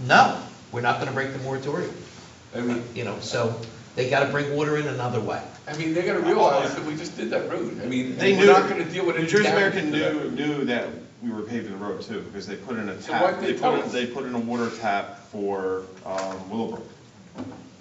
no, we're not gonna break the moratorium, I mean, you know, so they gotta bring water in another way. I mean, they're gonna realize that we just did that road. I mean, They we're knew, not gonna deal with New any Jersey damage American to that. knew, knew that we were paving the road too, because they put in a So tap, what they they put, in- told us. they put in a water tap for um, Willowbrook.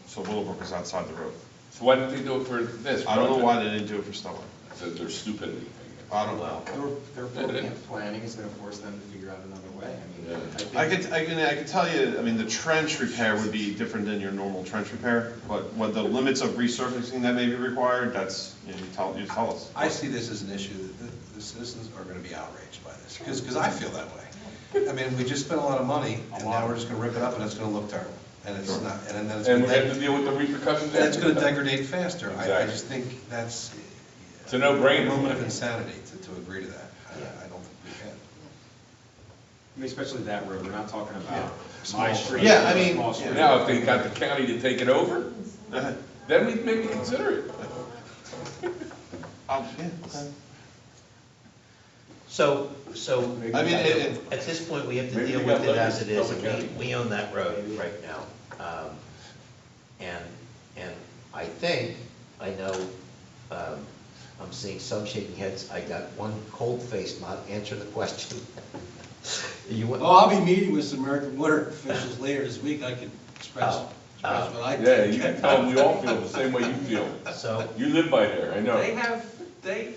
So Willowbrook is outside the road. So why didn't they do it for this? I don't know project? why they didn't do it for Stillwater. That Their stupidity. I I don't know. Their, their program planning is gonna force them to figure out another way. I mean, I I think, could, I can, I could tell you, I mean, the trench repair would be different than your normal trench repair, but what the limits of resurfacing that may be required, that's, you know, you tell, you tell us. I see this as an issue, that the- the citizens are going to be outraged by this, because, I feel that way. I mean, we just spent a lot of money, and now we're just going to rip it up, and it's going to look terrible, and it's not, and then it's think. And going we have to to, deal with the repercussions. and it's going to after that. degrade faster. I, I just think that's. It's a no-brainer. A moment of insanity to, to agree to that. I I don't think we can. I mean, especially that road, we're not talking about my street. Yeah, I mean, small street. Now, if they got the county to take it over, then we'd maybe consider it. Um, yeah, okay. So, so I mean, it, at this point, we have to Maybe deal we with got it as letters it is, from the and county. we, we own that road right now. Um, And, and I think, I know, um, I'm seeing some shaking heads, I got one cold-faced not answer the question. You want? Oh, I'll be meeting with some American water officials later this week, I can express, Oh, express what I Yeah, think. you can tell them we all feel the same way you feel. uh, So, You live by there, I know. They have, they,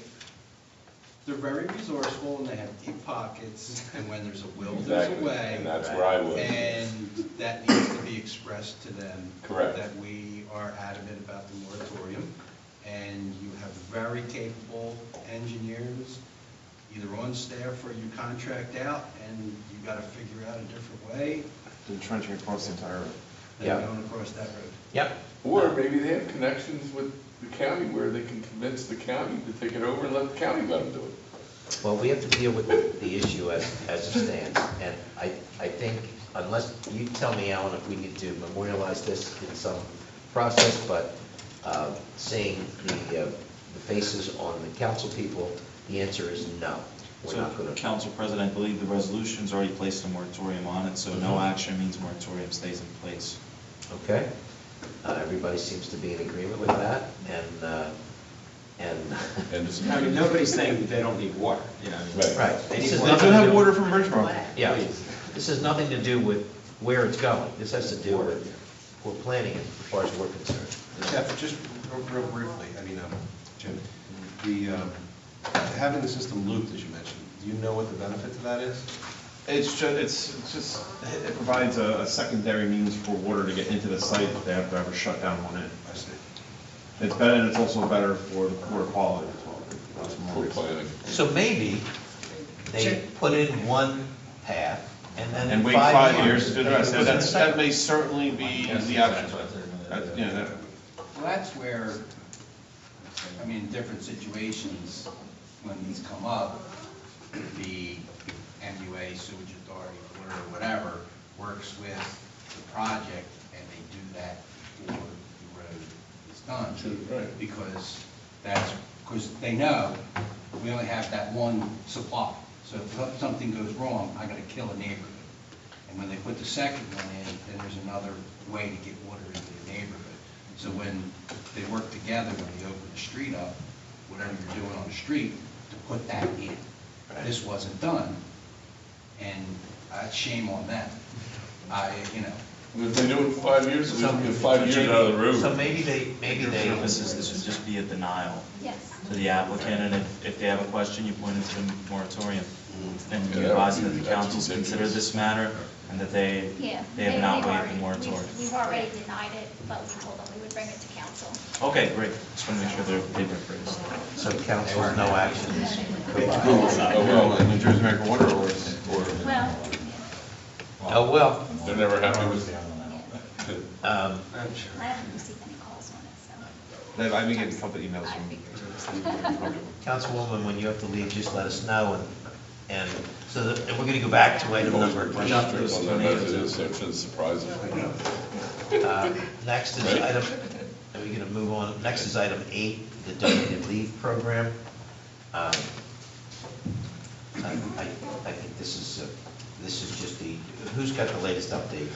they're very resourceful and they have deep pockets, and when there's a will, there's a Exactly, and way. that's where I would. And that needs to be expressed to them. Correct. That we are adamant about the moratorium, and you have very capable engineers, either on staff or you contract out, and you gotta figure out a different way and trenching across the entire road. Yeah. than going across that road. yep, Or maybe they have connections with the county where they can convince the county to take it over and let the county let them do it. well, we have to deal with the- the issue as, as it stands. And I, I think unless, you tell me, Alan, if we need to memorialize this in some process, but uh, seeing the, uh, the faces on the council people, the answer is no. We're So, not going to. Council President, I believe the resolution's already placed a moratorium on it, so no action means moratorium stays in place. Okay? Uh, Everybody seems to be in agreement with that, and, uh, and, And it's I mean, nobody's saying that they don't need water. Yeah, I mean- right. This They need is They water. do nothing to have do- water from Bridgebrook. Yeah, this has nothing to do with where it's going. This has to do with, we're planning it, as far as we're concerned. Jeff, just real- real briefly, I mean, um, Jim, the, um, having the system looped, as you mentioned, do you know what the benefit to that is? It's just, it's just, it provides a, a secondary means for water to get into the site if they have to ever shut down one end. I see. It's better, and it's also better for the water quality as well. That's more poor reason. planning. So maybe they put in one path, and then And wait five years to do the rest, Now, that's, that may certainly be the option. That- you know, that- Well, that's where, I mean, in different situations, when these come up, the MUA, sewage authority, or whatever, works with the project, and they do that before the road is done. right. Because that's, because they know, we only have that one supply, so if something goes wrong, I gotta kill a neighborhood. And when they put the second one in, then there's another way to get water into the neighborhood. So when they work together, when they open the street up, whatever you're doing on the street, to put that in. This wasn't done, and uh, shame on them. I, you know, And If they do it in five years, we So- don't get five years out of the road. So maybe they, maybe Your they, purpose is this would just be a denial Yes. to the applicant, and if, if they have a question, you point it to the moratorium. And Mm-hmm. Yeah, you that advise would that be- the that's councils consider ridiculous. this matter, and that they, Yeah. they have not waived the moratorium. We've- We've already denied it, but we told them we would bring it to council. Okay, great, just want to make sure they're, they've been approved. so council has no action. Oh, Well, well, New Jersey American Water or, or. Well, Oh, well, they're never happy with it. um, I haven't received any calls on it, so. That- I've been getting a couple emails from. Councilwoman, when you have to leave, just let us know, and, and so that, and we're going to go back to item Always number. pretty strict on that, as it is, so it shouldn't surprise us. Uh, Next is item, are we going to move on? Next is item eight, the donated leave program. Um, I, I I think this is, uh, this is just the, who's got the latest update?